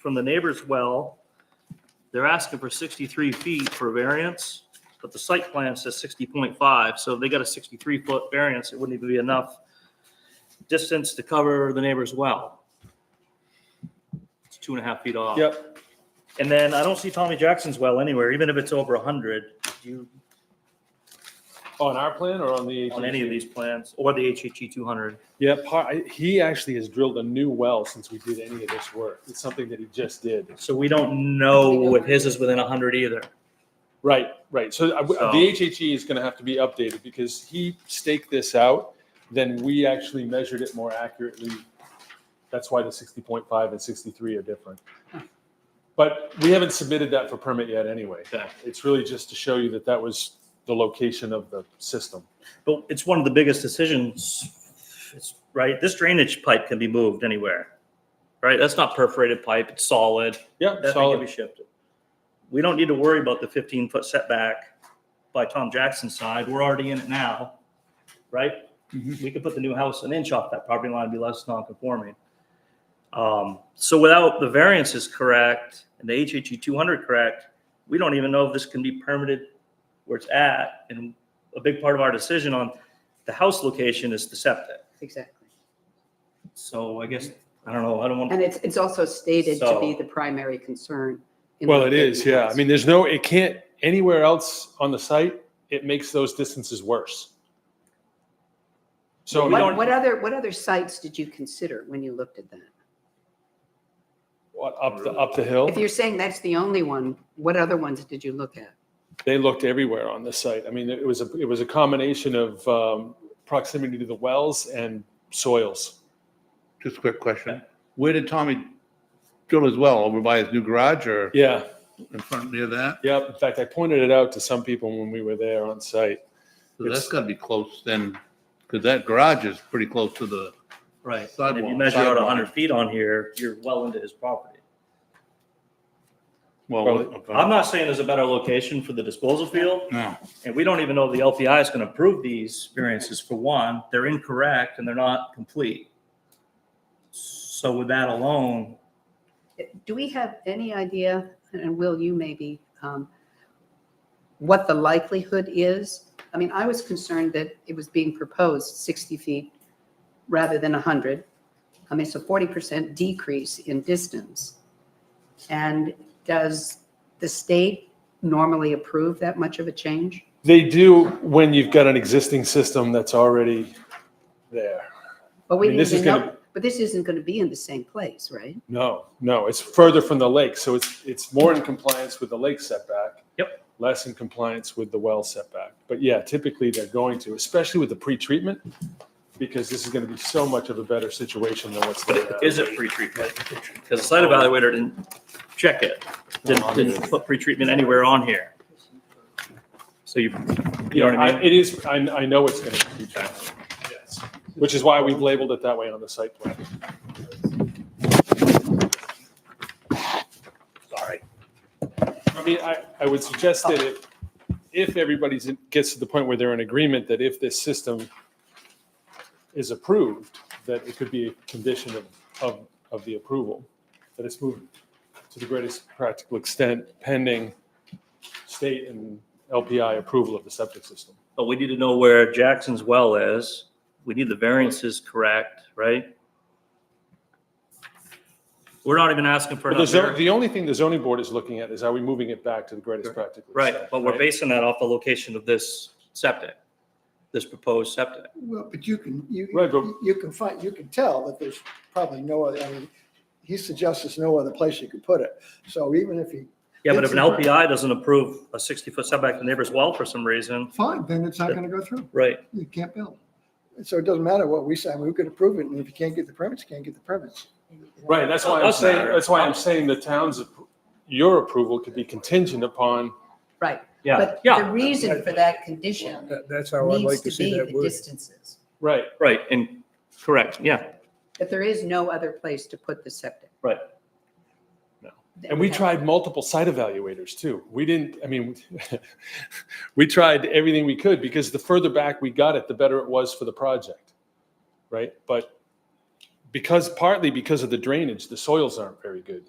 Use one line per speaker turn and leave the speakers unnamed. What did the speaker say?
from the neighbor's well. They're asking for 63 feet for variance, but the site plan says 60.5, so if they got a 63-foot variance, it wouldn't even be enough distance to cover the neighbor's well. It's two and a half feet off.
Yep.
And then I don't see Tommy Jackson's well anywhere, even if it's over 100, do you,
On our plan or on the?
on any of these plans, or the E HHE 200.
Yeah, par- I- he actually has drilled a new well since we did any of this work. It's something that he just did.
So we don't know if his is within 100 either.
Right, right. So I-
So-
the HHE is going to have to be updated because he staked this out, then we actually measured it more accurately. That's why the 60.5 and 63 are different. But we haven't submitted that for permit yet anyway.
Okay.
It's really just to show you that that was the location of the system.
But it's one of the biggest decisions, it's, right? This drainage pipe can be moved anywhere, right? That's not perforated pipe, it's solid.
Yeah,
That thing can be
solid.
shifted. We don't need to worry about the 15-foot setback by Tom Jackson's side. We're already in it now, right? We could put the new house an inch off that property line, and be less non-conforming. Um, So without the variances correct and the HHE 200 correct, we don't even know if this can be permitted where it's at. And a big part of our decision on the house location is the septic.
Exactly.
So I guess, I don't know, I don't want.
And it's, it's also stated to be
So-
the primary concern. in
Well,
the
it is,
fifty
yeah. I
house.
mean, there's no, it can't, anywhere else on the site, it makes those distances worse. So.
we
What,
don't-
what other, what other sites did you consider when you looked at that?
What, up the, up the hill?
If you're saying that's the only one, what other ones did you look at?
They looked everywhere on the site. I mean, it was a, it was a combination of um, proximity to the wells and soils.
Just a quick question. Where did Tommy drill his well? Over by his new garage or
Yeah,
in front near that?
yep. In fact, I pointed it out to some people when we were there on site.
'Cause That's gotta be close then, because that garage is pretty close to the,
Right. And if
Sidewalk,
you measure out
sidewalk.
100 feet on here, you're well into his property.
well. uh,
Probably.
I'm not saying there's a better location for the disposal field,
No,
and we don't even know if the LPI is going to approve these variances for one. They're incorrect and they're not complete. So with that alone,
Do we have any idea, and Will, you maybe, um, what the likelihood is? I mean, I was concerned that it was being proposed 60 feet rather than 100. I mean, it's a 40% decrease in distance. And does the state normally approve that much of a change?
They do when you've got an existing system that's already there.
But we
I mean,
didn't
this is
even know-
gonna-
But this isn't going to be in the same place, right?
No, no, it's further from the lake, so it's, it's more in compliance with the lake setback.
Yep.
Less in compliance with the well setback. But yeah, typically they're going to, especially with the pre-treatment, because this is gonna be so much of a better situation than what's there. now.
is it pretreatment? Because the site evaluator didn't check it, didn't, didn't put pretreatment anywhere on here. So you, you know what I
I-
mean?
It is, I, I know it's gonna be pre-treatment, yes, which is why we've labeled it that way on the site plan.
Sorry.
I mean, I, I would suggest that if, if everybody's, in- gets to the point where they're in agreement that if this system is approved, that it could be a condition of, of, of the approval, that it's moved to the greatest practical extent pending state and LPI approval of the septic system.
But we need to know where Jackson's well is. We need the variances correct, right? We're not even asking for
But the,
another,
zo-
variance.
the only thing the zoning board is looking at is are we moving it back to the greatest practical extent?
right, but we're basing that off the location of this septic, this proposed septic.
Well, but you can, you,
Right, but-
you can find, you can tell that there's probably no other, I mean, he suggests there's no other place you could put it. So even if he,
Yeah, but if an LPI doesn't approve a 60-foot setback to the neighbor's well for some reason,
fine, then it's not gonna go through.
right,
You can't build. So it doesn't matter what we say, I mean, we could approve it, and if you can't get the permits, you can't get the permits.
Right, that's why I'm
Doesn't
saying,
matter.
that's why I'm saying the town's, appro- your approval could be contingent upon
Right.
yeah,
But
yeah,
the reason for that condition
That- That's how I'd
needs
like
to
to see
be
that
the
word.
distances.
Right.
right, and, correct, yeah,
But there is no other place to put the septic.
right.
And we tried multiple site evaluators too. We didn't, I mean, we tried everything we could because the further back we got it, the better it was for the project. Right? But because partly because of the drainage, the soils aren't very good.